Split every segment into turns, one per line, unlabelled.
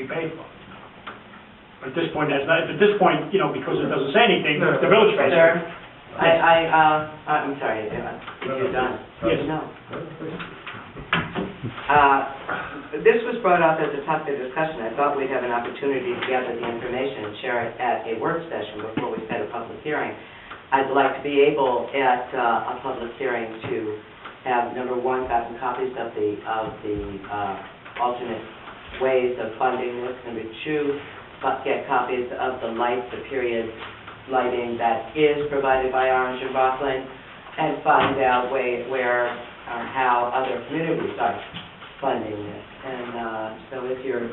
be paid for. But at this point, that's not, at this point, you know, because it doesn't say anything, the village pays for it.
Sir, I, I, uh, I'm sorry, Eva, you're done.
Yes.
No. Uh, This was brought up as a topic of discussion. I thought we'd have an opportunity to gather the information and share it at a work session before we set a public hearing. I'd like to be able at uh, a public hearing to have, number one, gotten copies of the, of the uh, alternate ways of funding this. Number two, co- get copies of the lights, the period lighting that is provided by Orange and Rockland, and find out way- where, uh, how other communities are funding this. And uh, so if you're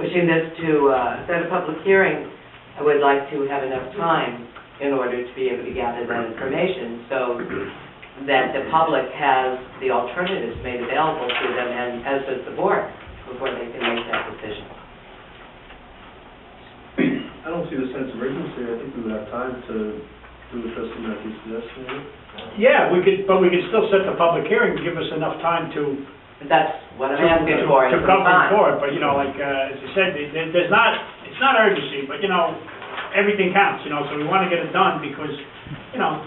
pushing this to uh, set a public hearing, I would like to have enough time in order to be able to gather that information so that the public has the alternatives made available to them and as does the board before they can make that decision.
I don't see the sense of urgency, I think we would have time to do what trustee Matthews suggested.
Yeah, we could, but we could still set the public hearing, give us enough time to
But that's what I'm
to-
asking for, is
To cover
some
it
time.
for it, but you know, like, uh, as you said, there- there- there's not, it's not urgency, but you know, everything counts, you know, so we want to get it done because, you know,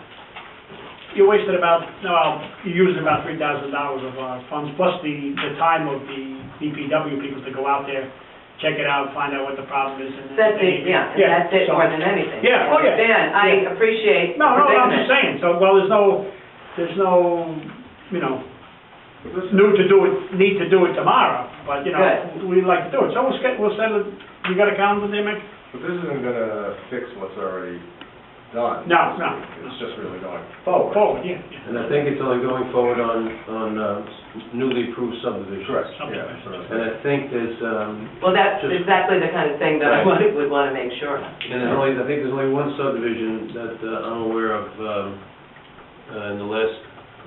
you wasted about, no, you used about three thousand dollars of our funds, plus the, the time of the DPW people to go out there, check it out, find out what the problem is and.
That's it, yeah, and that's it
so-
more than anything.
Yeah, oh, yeah,
Dan,
yeah.
I appreciate the
No, no, I'm just
predicament.
saying, so, well, there's no, there's no, you know, new to do it, need to do it tomorrow, but, you know, we'd like to do it, so we'll schedule, we'll send it, you got a calendar there, Mick?
But this isn't gonna fix what's already done.
No, no.
It's just really going
Oh,
forward.
Forward, yeah, yeah.
And I think it's only going forward on, on uh, newly approved subdivisions.
Correct,
Something
yeah.
like
so-
And I think there's, um,
Well, that's
Just-
exactly the kind of thing that I
Right.
wanted- would want to make sure. of.
and there's only, I think there's only one subdivision that uh, I'm aware of, um, uh, in the last,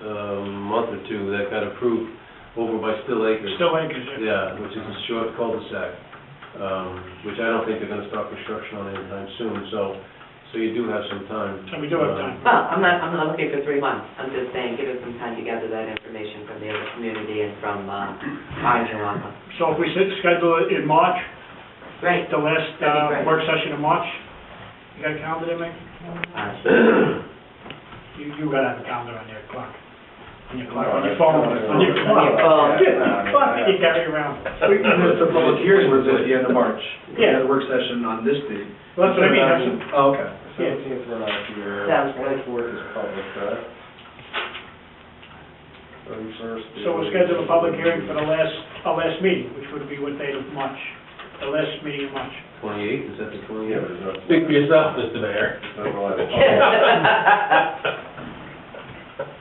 um, month or two that got approved over by Still Acres.
Still acres, yeah.
Yeah, which is a short cul-de-sac, um, which I don't think they're gonna start construction on anytime soon, so, so you do have some time.
So we do have time.
Well, I'm not, I'm not looking for three months. I'm just saying, give us some time to gather that information from the other community and from uh, Orange and Wampum.
So if we sit, schedule it in March,
Great.
the last,
That'd be
uh,
great.
work session in March, you got a calendar there, Mick?
Uh,
You, you gotta have a calendar on your clock, on your clock, on
No,
your
I-
phone,
no,
on your
no,
clock.
no, no,
Yeah,
no, I mean,
fuck,
I-
you carry around.
We can miss the public hearing was at the end of March. We
Yeah.
had a work session on this date.
Well, that's what I mean, that's,
Oh, okay.
Seventeenth we're not here,
Sounds good.
twenty-fourth is public, right? Thirty-first.
So we'll schedule a public hearing for the last, our last meeting, which would be what date of March? The last meeting in March.
Twenty-eighth, Uh, is that the
Yeah,
twenty-eighth?
there's no.
Speak for yourself, Mr. Mayor.
no reliable-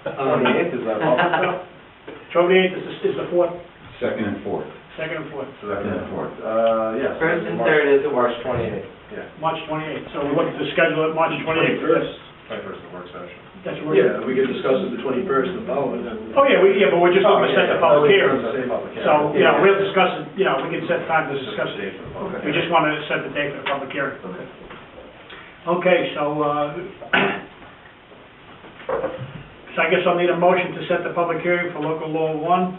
Um,
Twenty-eighth Oh, is not public.
Twenty-eighth is, the- is the fourth,
Second and fourth.
second and fourth,
Second and fourth, uh, yes.
First and third is the
March
worst.
twenty-eighth, yeah.
March twenty-eighth. So we're looking to schedule it March twenty-eighth.
Twenty-first.
Twenty-first is work session.
That's where.
Yeah, we could discuss it the twenty-first and following.
Oh, yeah, we, yeah, Oh, but we're just going to set the public hearing. So, you know, we'll discuss it, you know, we can set time to discuss it. We just want to set the date for the public hearing.
Okay.
Okay, so, uh, so I guess I'll need a motion to set the public hearing for local law one,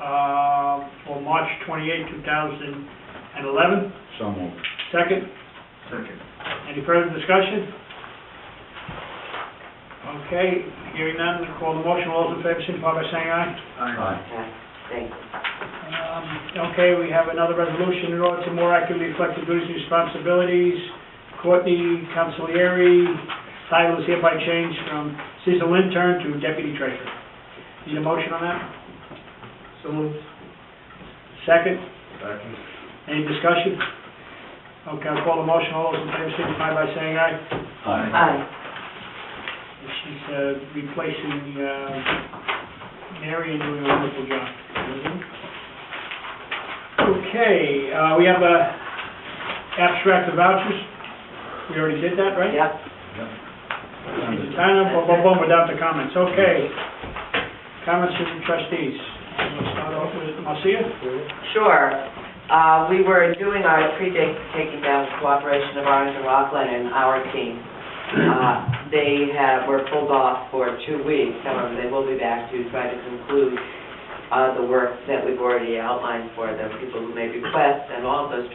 uh, for March twenty-eighth, two thousand and eleven.
So moved.
Second,
Second.
any further discussion? Okay, hearing none, call the motion, all those in favor, signify by saying aye.
Aye.
Okay, Thanks.
Um, Okay, we have another resolution in order to more accurately reflect the duties and responsibilities. Courtney Consigliere, title is hereby changed from seasonal intern to deputy treasurer. Need a motion on that?
So moved.
Second,
Second.
any discussion? Okay, I'll call the motion, all those in favor signify by saying aye.
Aye.
She's uh, replacing uh, Mary and doing a wonderful job. Okay, uh, we have uh, abstract of vouchers. We already did that, right?
Yep.
It's Kind of, boom, boom, boom, without the comments. Okay. Comments from the trustees. We'll start off with Marcia.
Sure. Uh, We were doing our pre-taking down cooperation of Orange and Rockland and our team. Uh, They have, were pulled off for two weeks, however, they will be back to try to conclude uh, the work that we've already outlined for them, people who made requests, and all of those